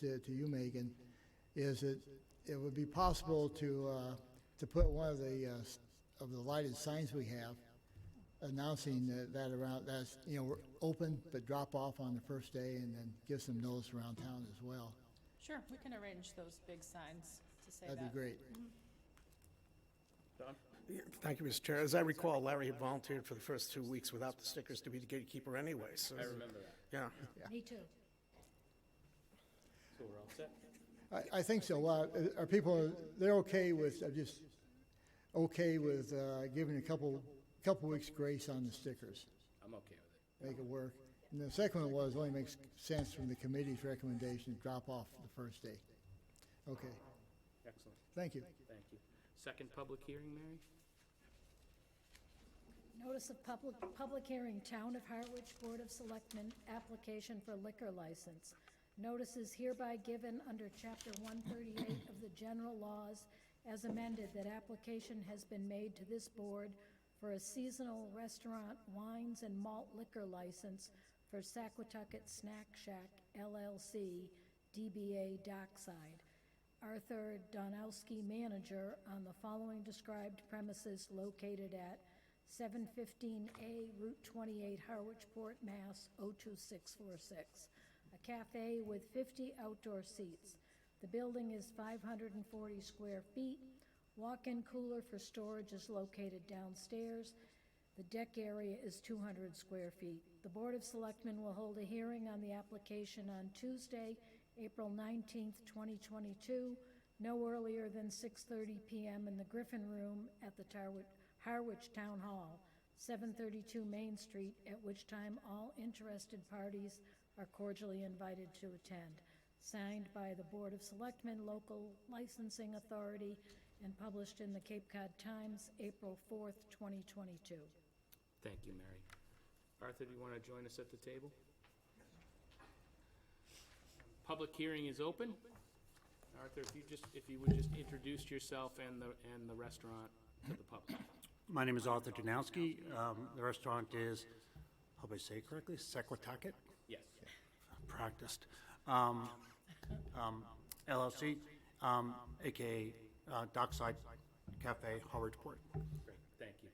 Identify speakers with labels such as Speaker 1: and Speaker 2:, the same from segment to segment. Speaker 1: to to you, Megan, is that it would be possible to, uh, to put one of the, uh, s- of the lighted signs we have announcing that- that around, that's, you know, we're open, but drop off on the first day and then give some notice around town as well.
Speaker 2: Sure, we can arrange those big signs to say that.
Speaker 1: That'd be great.
Speaker 3: Yeah, Thank you, Mr. Chair. As I recall, Larry had volunteered for the first two weeks without the stickers to be the gatekeeper anyway, so. I remember that. Yeah.
Speaker 4: Me too.
Speaker 5: So we're all set?
Speaker 1: I, I think so. Well, uh, Are people, they're okay with, uh, just okay with uh, giving a couple, couple weeks grace on the stickers?
Speaker 5: I'm okay with it.
Speaker 1: make it work. And the second one was, only makes sense from the committee's recommendation, to drop off the first day. Okay,
Speaker 5: Excellent,
Speaker 1: thank you.
Speaker 5: thank you. Second public hearing, Mary?
Speaker 4: Notice of public, public hearing, Town of Harwich Board of Selectmen, application for liquor license. Notice is hereby given under Chapter 138 of the General Laws as amended that application has been made to this board for a seasonal restaurant wines and malt liquor license for Saquotucket Snack Shack LLC, DBA Dockside. Arthur Donowski, manager, on the following described premises located at 715A Route 28, Harwichport, Mass. 02646. A cafe with 50 outdoor seats. The building is 540 square feet. Walk-in cooler for storage is located downstairs. The deck area is 200 square feet. The Board of Selectmen will hold a hearing on the application on Tuesday, April 19th, 2022, no earlier than 6:30 PM in the Griffin Room at the Tarwi- Harwich Town Hall, 732 Main Street, at which time all interested parties are cordially invited to attend. Signed by the Board of Selectmen, Local Licensing Authority, and published in the Cape Cod Times, April 4th, 2022.
Speaker 5: Thank you, Mary. Arthur, do you want to join us at the table? Public hearing is open. Arthur, if you just, if you would just introduce yourself and the, and the restaurant to the public.
Speaker 6: My name is Arthur Donowski. Um, The restaurant is, hope I say it correctly, Sequatucket,
Speaker 5: Yes.
Speaker 6: practiced, um, um, LLC, um, AKA uh, Dockside Cafe, Harwichport.
Speaker 5: Great, thank you.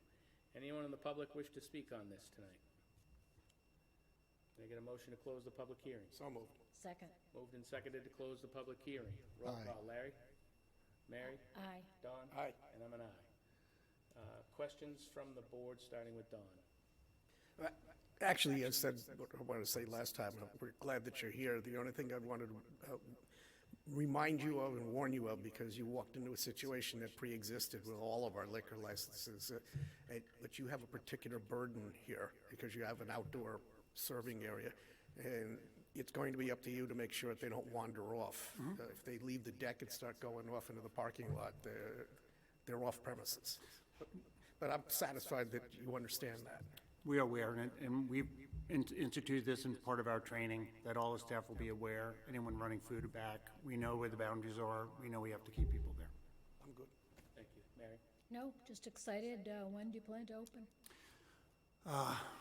Speaker 5: Anyone in the public wish to speak on this tonight? Can I get a motion to close the public hearing?
Speaker 3: So moved.
Speaker 4: Second.
Speaker 5: Moved and seconded to close the public hearing. Roll
Speaker 1: Aye.
Speaker 5: call, Larry? Mary?
Speaker 4: Aye.
Speaker 5: Don?
Speaker 3: Aye.
Speaker 5: And I'm an aye. Uh, Questions from the board, starting with Don?
Speaker 3: Uh, Actually, I said what I wanted to say last time. and We're glad that you're here. The only thing I wanted to uh, remind you of and warn you of, because you walked into a situation that pre-existed with all of our liquor licenses, uh, and- but you have a particular burden here because you have an outdoor serving area. And it's going to be up to you to make sure that they don't wander off. Uh, If they leave the deck and start going off into the parking lot, they're, they're off premises. But- But I'm satisfied that you understand that.
Speaker 6: We are aware, and- and we've in- instituted this in part of our training, that all the staff will be aware, anyone running food or back, we know where the boundaries are, we know we have to keep people there.
Speaker 3: I'm good.
Speaker 5: Thank you. Mary?
Speaker 4: No, just excited. Uh, When do you plan to open?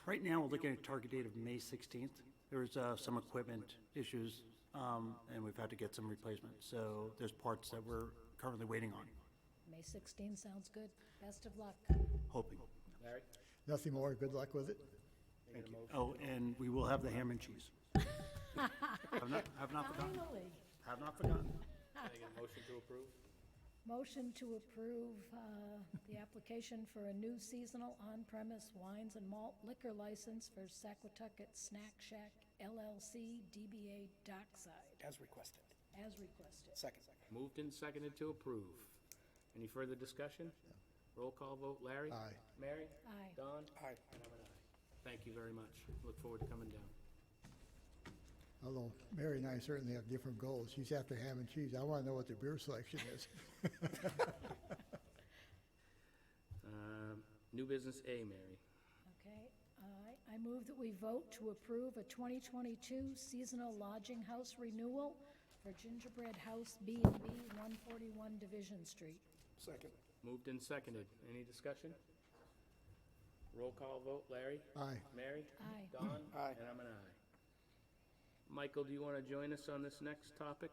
Speaker 6: Right now, we're looking at a target date of May 16th. There's uh, some equipment issues, um, and we've had to get some replacement. So there's parts that we're currently waiting on,
Speaker 4: May 16 sounds good. Best of luck.
Speaker 6: hoping.
Speaker 5: Larry?
Speaker 1: Nothing more, good luck with it.
Speaker 6: Thank you. Oh, and we will have the ham and cheese. Have not, have not forgotten,
Speaker 4: Finally,
Speaker 6: have not forgotten.
Speaker 5: Can I get a motion to approve?
Speaker 4: motion to approve uh, the application for a new seasonal on-premise wines and malt liquor license for Saquotucket Snack Shack LLC, DBA Dockside,
Speaker 3: As requested.
Speaker 4: as requested.
Speaker 3: Second.
Speaker 5: Moved and seconded to approve. Any further discussion? Roll call vote, Larry?
Speaker 1: Aye.
Speaker 5: Mary?
Speaker 4: Aye.
Speaker 5: Don?
Speaker 3: Aye.
Speaker 5: And I'm an aye. Thank you very much. Look forward to coming down.
Speaker 1: Although Mary and I certainly have different goals. She's after ham and cheese. I want to know what the beer selection is.
Speaker 5: Um, New business A, Mary.
Speaker 4: Okay, I, I move that we vote to approve a 2022 seasonal lodging house renewal for Gingerbread House B and B, 141 Division Street.
Speaker 3: Second.
Speaker 5: Moved and seconded. Any discussion? Roll call vote, Larry?
Speaker 1: Aye.
Speaker 5: Mary?
Speaker 4: Aye.
Speaker 5: Don?
Speaker 3: Aye.
Speaker 5: And I'm an aye. Michael, do you want to join us on this next topic?